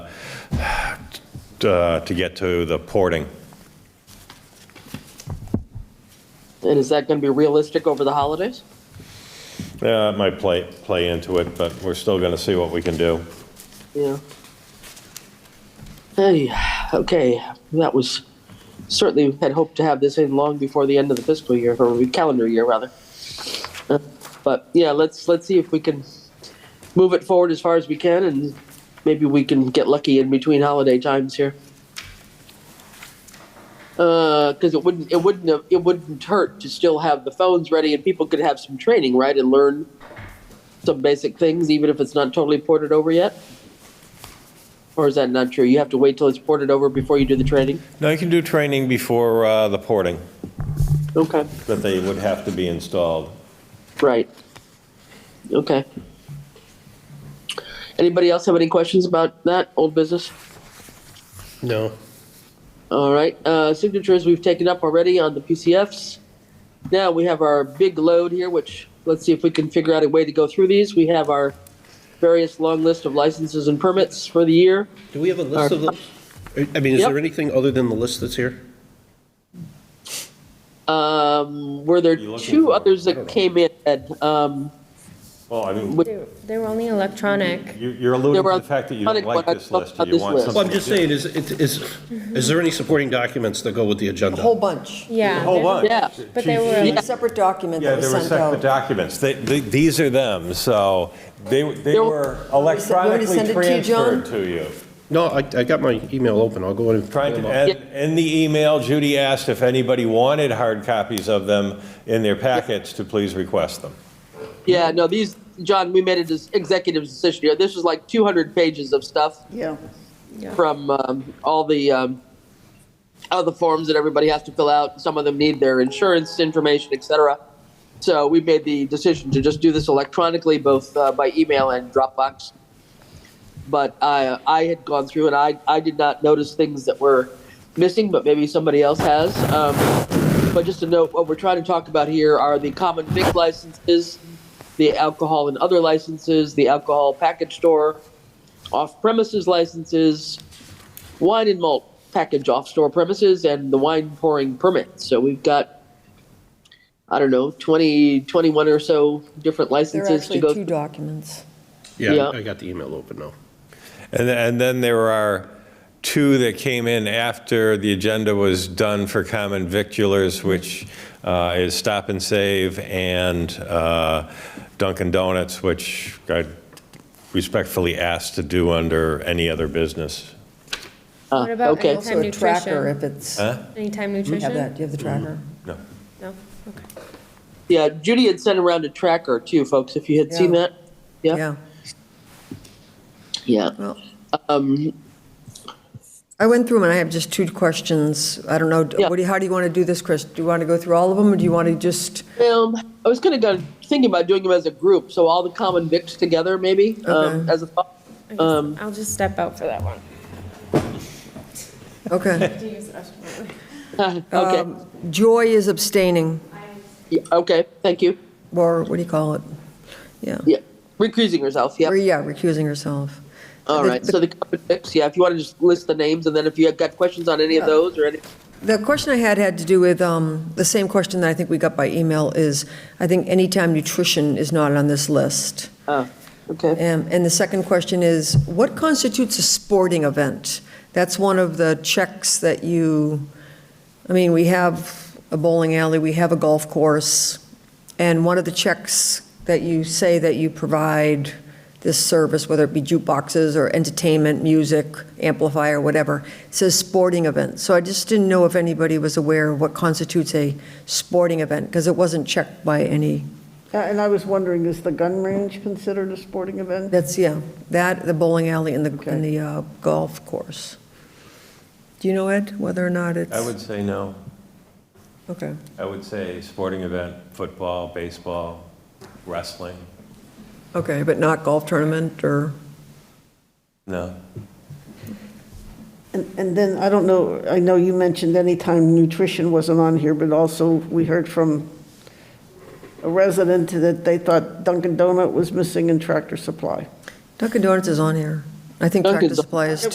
uh, to get to the porting. And is that going to be realistic over the holidays? Yeah, it might play, play into it, but we're still going to see what we can do. Yeah. Hey, okay, that was, certainly had hoped to have this in long before the end of the fiscal year, or calendar year, rather. Uh, But, yeah, let's, let's see if we can move it forward as far as we can, and maybe we can get lucky in between holiday times here. Because it wouldn't, it wouldn't, have- it wouldn't hurt to still have the phones ready, and people could have some training, right, and learn some basic things, even if it's not totally ported over yet? Or is that not true? You have to wait till it's ported over before you do the training? No, you can do training before uh, the porting, Okay. but they would have to be installed. Right. Okay. Anybody else have any questions about that old business? No. All right. Uh, signatures we've taken up already on the PCFs. Now we have our big load here, which let's see if we can figure out a way to go through these. We have our various long list of licenses and permits for the year. Do we have a list of those? I mean, is Uh, Yep. there anything other than the list that's here? Um, were there You looking two for- others I that don't know. came in? Ed? Um, Well, I mean, Which- They they were only electronic. you- you're alluding There were to the fact that you don't other- like this list, and you this want list. something. Well, I'm just to do. saying, is, it- is, is there any supporting documents that go with the A whole agenda? bunch. Yeah. A whole there's a- bunch. Yeah. But She- they were- she- Yeah. A separate document Yeah, that they was were sent separate out. documents. They, they, these are them, so they, they There- were already sent- we already electronically sent it to you, John? transferred to you. No, I, I got my email open, I'll go in and. Trying to, and in the email, Judy asked if anybody wanted hard copies of them in their packets to please request them. Yeah, no, these, John, we made a dis- executive decision here. This was like 200 pages of stuff Yeah. from um, all the um, all the forms that everybody has to fill out. Some of them need their insurance information, etc. So we made the decision to just do this electronically, both uh, by email and Dropbox. But I I had gone through and I I did not notice things that were missing, but maybe somebody else has. Um, but just to note, what we're trying to talk about here are the common vic licenses, the alcohol and other licenses, the alcohol package store, off-premises licenses, wine and malt package off-store premises, and the wine pouring permit. So we've got, I don't know, 20, 21 or so different There licenses are actually to go. two documents. Yeah, Yeah. I got the email open now. And, and then there are two that came in after the agenda was done for common victulars, which uh, is Stop and Save and uh, Dunkin' Donuts, which I respectfully asked to do under any other business. Uh, What about okay. anytime So a tracker nutrition? if it's, you Huh? Anytime have that, nutrition? do you have the tracker? No. No? Okay. Yeah, Judy had sent around a tracker too, folks, if you had seen Yeah. that. Yeah. Yeah. Yeah. Well, Um, I went through them and I have just two questions. I don't know, Yeah. what do you, how do you want to do this, Chris? Do you want to go through all of them or do you want to just, Um, I was kind of go, thinking about doing them as a group, so all the common vics together, maybe, um, Okay. as a thought. I guess Um, I'll just step out for that one. okay. Do you use the restroom? okay. Um, Joy is abstaining, Yeah, okay. Thank you. or what do you call it? Yeah. Yeah. Recusing herself. Yeah. Or, yeah, recusing herself. All The- right, so the carbon fix, yeah, if you want to just list the names, and then if you have got questions on any of those or any, The question I had had to do with, um, the same question that I think we got by email is, I think anytime nutrition is not on this list. oh, okay. Um, And the second question is, what constitutes a sporting event? That's one of the checks that you, I mean, we have a bowling alley, we have a golf course, and one of the checks that you say that you provide this service, whether it be jukeboxes or entertainment, music, amplifier, whatever, says sporting event. So I just didn't know if anybody was aware of what constitutes a sporting event, because it wasn't checked by any, Yeah, And I was wondering, is the gun range considered a sporting event? That's, yeah, that, the bowling alley and the, Okay. and the uh, golf course. Do you know, Ed, whether or not it's? I would say no. Okay, I would say sporting event, football, baseball, wrestling, okay, but not golf tournament or, no. And and then, I don't know, I know you mentioned anytime nutrition wasn't on here, but also we heard from a resident that they thought Dunkin' Donut was missing in Tractor Supply. Dunkin' Donuts is on here. I think Dunkin' Tractor Don- Supply is